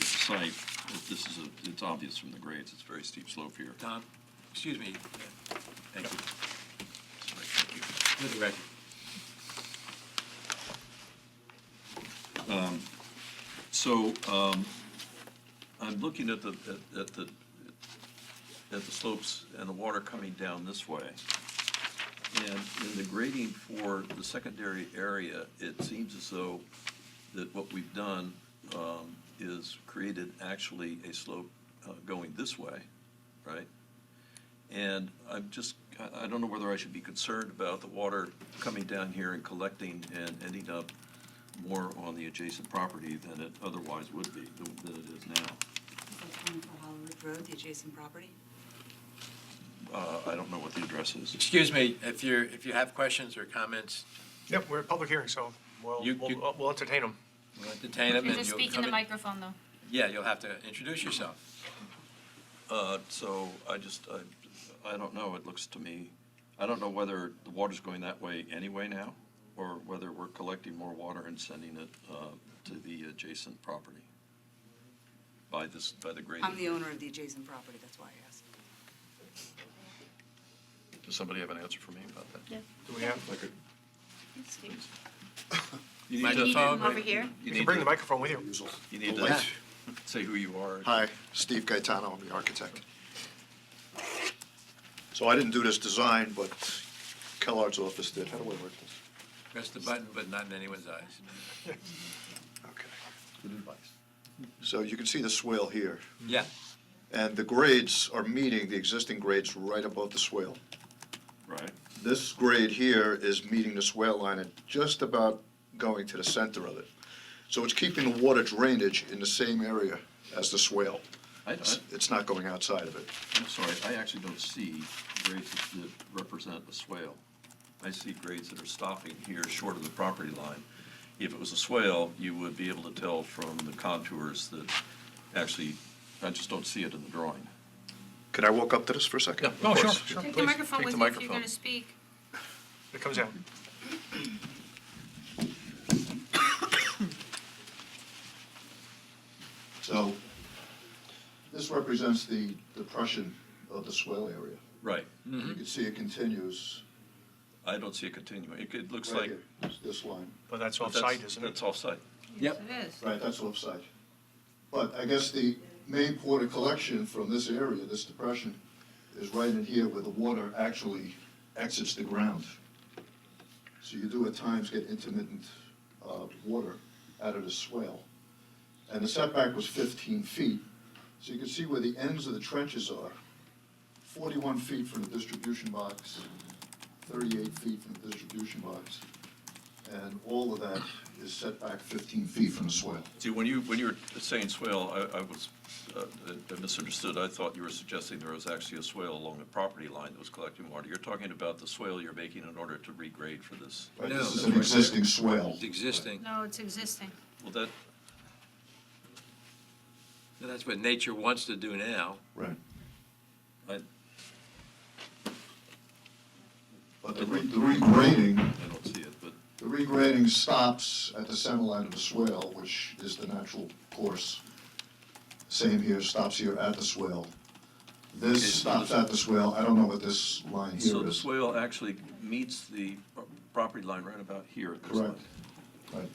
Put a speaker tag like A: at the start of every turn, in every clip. A: site, it- this is, a- it's obvious from the grades, it's a very steep slope here.
B: Tom, excuse me,
A: Thank you.
B: Sorry, thank you. for the record.
A: So um, I'm looking at the, at- at the, at the slopes and the water coming down this way. And in the grading for the secondary area, it seems as though that what we've done um, is created actually a slope uh, going this way, right? And I'm just, I, I don't know whether I should be concerned about the water coming down here and collecting and ending up more on the adjacent property than it otherwise would be, than than it is now.
C: Is that coming from Hollow Ridge Road, the adjacent property?
A: Uh, I don't know what the address is.
B: Excuse me, if you're, if you have questions or comments,
D: Yep, we're at public hearing, so we'll,
B: You-
D: we'll- uh,
B: you-
D: we'll we'll entertain them.
B: we'll entertain
E: You
B: them
E: can
B: and
E: just
B: you'll
E: speak in
B: come
E: the
B: in-
E: microphone, though.
B: Yeah, you'll have to introduce yourself.
A: Uh, So I just, I- I don't know, it looks to me, I don't know whether the water's going that way anyway now, or whether we're collecting more water and sending it uh, to the adjacent property by this, by the grading.
C: I'm the owner of the adjacent property, that's why I asked.
A: Does somebody have an answer for me about that?
D: Do we have,
A: If I could-
B: You
A: You need
B: might
A: to,
B: just- Microphone.
E: Over here.
A: you
D: you
A: need
D: can bring the
A: to,
D: microphone with you.
A: you need to
F: Light.
A: say who you are.
F: Hi, Steve Gaetano, I'm the architect. So I didn't do this design, but Kellard's office did. How do I work this?
B: Press the button, but not in anyone's eyes.
F: Okay.
A: Good advice.
F: So you can see the swale here,
B: Yeah,
F: and the grades are meeting the existing grades right above the swale.
A: Right,
F: This grade here is meeting the swale line and just about going to the center of it. So it's keeping the water drainage in the same area as the swale.
A: I, I,
F: It's it's not going outside of it.
A: I'm sorry, I actually don't see grades that represent a swale. I see grades that are stopping here short of the property line. If it was a swale, you would be able to tell from the contours that actually, I just don't see it in the drawing.
F: Could I walk up to this for a second?
A: Yeah. Oh, sure,
F: sure.
E: Take the microphone
A: Take
E: with
A: the
E: you if you're
A: microphone.
E: going to speak.
D: It comes out.
F: So this represents the depression of the swell area.
A: Right.
F: You can see it continues
A: I don't see it continuing. It, it looks
F: right
A: like.
F: here, this- this line.
D: But that's
A: but that's-
D: offsite, isn't it?
A: That's offsite.
B: Yep.
E: It is.
F: Right, that's offsite. But I guess the main port of collection from this area, this depression, is right in here where the water actually exits the ground. So you do at times get intermittent uh, water out of the swale. And the setback was 15 feet, so you can see where the ends of the trenches are. 41 feet from the distribution box, 38 feet from the distribution box, and all of that is set back 15 feet from the swale.
A: See, when you, when you were saying swale, I, I was, uh, I misunderstood. I thought you were suggesting there was actually a swale along the property line that was collecting water. You're talking about the swale you're making in order to regrade for this.
F: Right,
B: No,
F: this is
B: that's
F: an
B: right.
F: existing swale.
B: It's existing.
E: No, it's existing.
A: Well, that,
B: And That's what nature wants to do now.
F: Right.
A: I,
F: But the re- the regrading,
A: I don't see it, but
F: the regrading stops at the center line of the swale, which is the natural course. Same here, stops here at the swale. This stops at the swale, I don't know what this line
A: so
F: here
A: the
F: is.
A: swale actually meets the pro- property line right about here at this line.
F: Correct.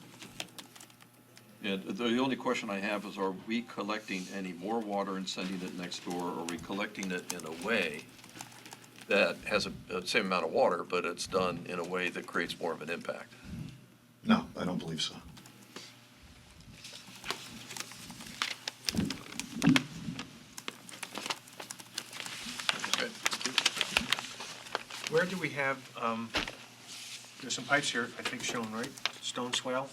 F: Right.
A: And the only question I have is, are we collecting any more water and sending it next door? Are we collecting it in a way that has a- the same amount of water, but it's done in a way that creates more of an impact?
F: No, I don't believe so.
A: Okay.
D: Where do we have, um, there's some pipes here, I think shown, right? Stone swale.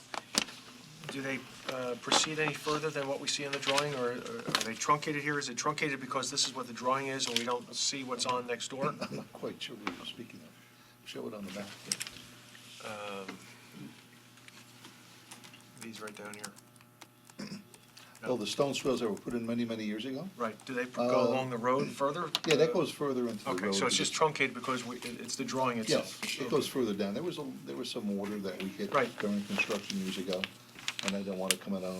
D: Do they uh, proceed any further than what we see in the drawing, or or are they truncated here? Is it truncated because this is what the drawing is and we don't see what's on next door?
G: I'm not quite sure what you're speaking of. Show it on the map.
D: These right down here.
G: Oh, the stone swells that were put in many, many years ago?
D: Right, do they go
G: Uh,
D: along the road further?
G: Yeah, that goes further into the road.
D: Okay, so it's just truncated because we, it- it's the drawing
G: Yeah,
D: itself?
G: it goes further down. There was, a- there was some water that we hit
D: Right.
G: during construction years ago, and I don't want to comment on